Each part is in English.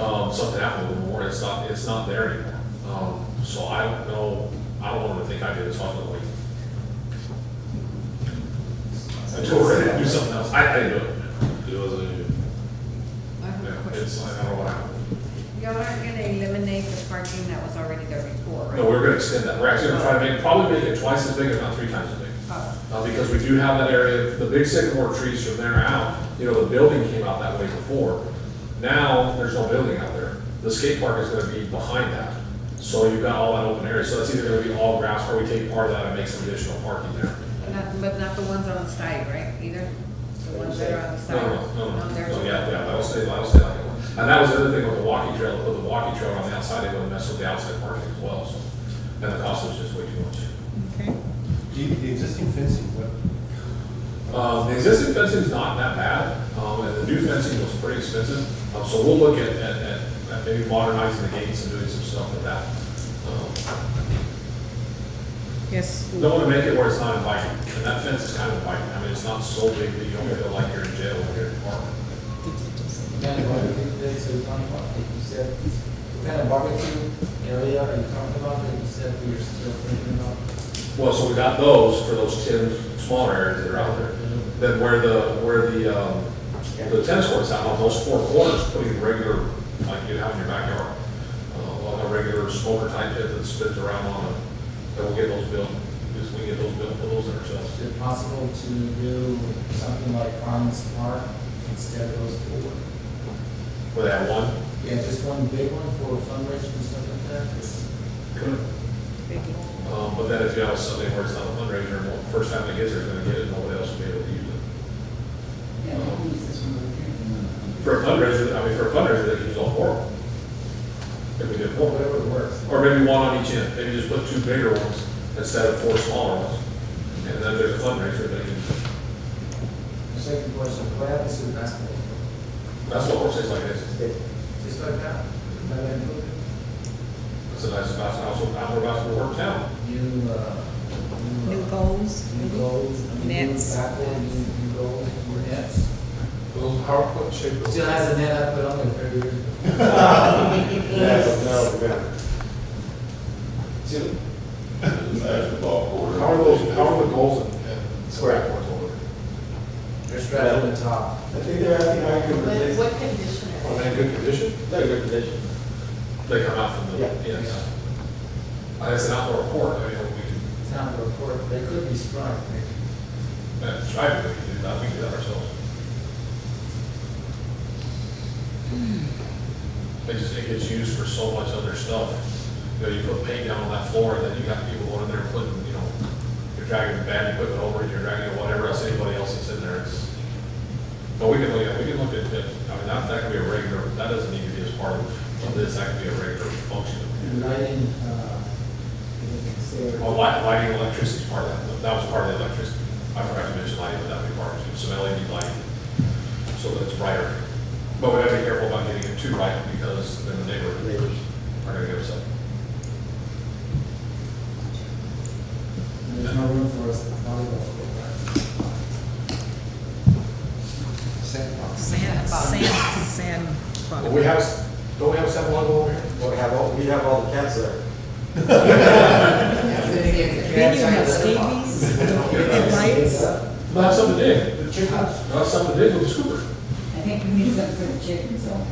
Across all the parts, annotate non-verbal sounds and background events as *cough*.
um, something happened with the warrant, it's not, it's not there anymore. Um, so I don't know, I don't want to think I did this off the way. I tore it, do something else, I, I didn't do it. It was a, I have a yeah, question. it's, I don't know what happened. Y'all aren't gonna eliminate the parking that was already there before, right? No, we're gonna extend that, we're actually gonna try to make, probably make it twice as big, if not three times as big. Oh, Uh, because we do have that area, the big sycamore trees from there out, you know, the building came out that way before. Now, there's no building out there. The skate park is gonna be behind that. So you've got all that open area, so that's either gonna be all grass or we take part of that and make some additional parking there. Not, but not the ones on the side, right, either? The ones that are on No, the no, side? no, no, they're- no, yeah, yeah, that'll stay, that'll stay like that. And that was the other thing with the walking trail, put the walking trail on the outside, they wouldn't mess with the outside parking as well, so. And the cost was just way too much. Okay. The, the existing fencing, what, Um, the existing fencing's not that bad, um, and the new fencing was pretty expensive, um, so we'll look at, at, at at maybe modernizing the gates and doing some stuff with that. Um, Yes. Don't wanna make it where it's not inviting, and that fence is kind of inviting, I mean, it's not so big that you don't feel like you're in jail when you're in the park. Kind of barbecue, that's what you're talking about, like you said, what kind of barbecue area are you talking about that you said we were still thinking about? Well, so we got those for those ten smaller areas that are out there. Then where the, where the, um, the tennis courts out on those four corners, putting regular, like you have in your backyard, uh, like a regular smoker type pit that spins around on it, that we'll get those built, because we get those built, put those in ourselves. Is it possible to do something like Farms Park instead of those four? With that one, Yeah, just one big one for fundraising and stuff like that? um, but then if you have something where it's not a fundraiser, well, first time it gets there, it's gonna get it, nobody else will be able to use it. For a fundraiser, I mean, for a fundraiser, they can use all four. of them. If we did Or four. whatever works. Or maybe one on each end, maybe just put two bigger ones instead of four smaller ones. And then there's a fundraiser, they can, The second question, what happens to the basketball? that's what horses like this. Just like that? Let that go? It's a nice basketball, also outdoor basketball work town. New, uh, new, New uh, goals? new goals, I mean, new Nets. backboard, new, new goals, more nets. little PowerPoint shape? of- Still has a net I put on there every year. Yeah, but no, we're gonna. How How are those, how are those? the goals and- and square boards over? They're strapped on the top. I think they're asking how you can What, replace. what condition are Are they in good condition? They're good condition. They come out from the, Yeah. yes. Uh, It's an outdoor court, I mean, we can, Town report, they could be sprung, maybe. uh, try to, we can do that, we can do that ourselves. It just, it gets used for so much other stuff. You know, you put paint down on that floor, and then you got people going in there putting, you know, you're dragging bad equipment over, it, you're dragging whatever else, anybody else that's in there, it's. But we can look at, we can look at, at- I mean, that, that could be a regular, that doesn't need to be as part of of this, that could be a regular function. Lighting, uh, you can consider- Well, light, lighting, electricity is part of that, that was part of the electricity. I forgot to mention lighting, but that'd be part of it, some LED lighting, so that it's brighter. But we gotta be careful about getting it too bright, because then the neighborhood Neighbors. are gonna get upset. there's no room for us to volleyball court, right? Sandbox. Sand, sand, sand. But we have, s- don't we have seven level over here? Well, we have all, we have all the cats *laughs* there. Then again, the Then you have cats are the bottom. scabies, and lights. But that's something big, the chicken house, that's something big with the scooper. I think we need something for the chickens, so.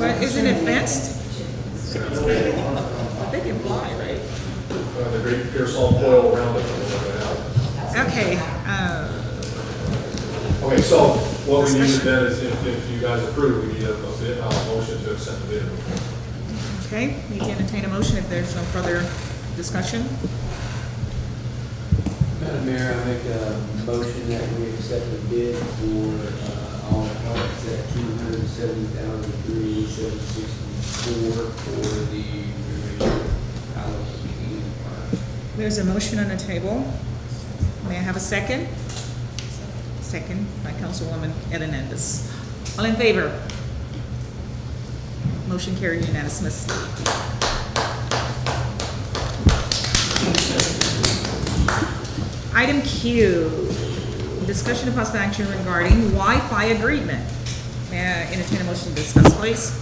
Well, isn't it fenced? Chickens. They can fly, right? Uh, The great Pearsall coil around it. Okay, uh, Okay, so what we need then is if, if you guys approve, we need a, a bid- a motion to accept the bid. okay, we can entertain a motion if there's no further discussion. Madam Mayor, I make a motion that we accept the bid for uh, all parts at two hundred and seventy thousand three seven sixty-four for the remainder house and park. There's a motion on the table. May I have a second? Second by Councilwoman Edenandis. All in favor? Motion carried unanimously. Item Q, discussion of possible action regarding Wi-Fi agreement. May I entertain a motion to discuss, please?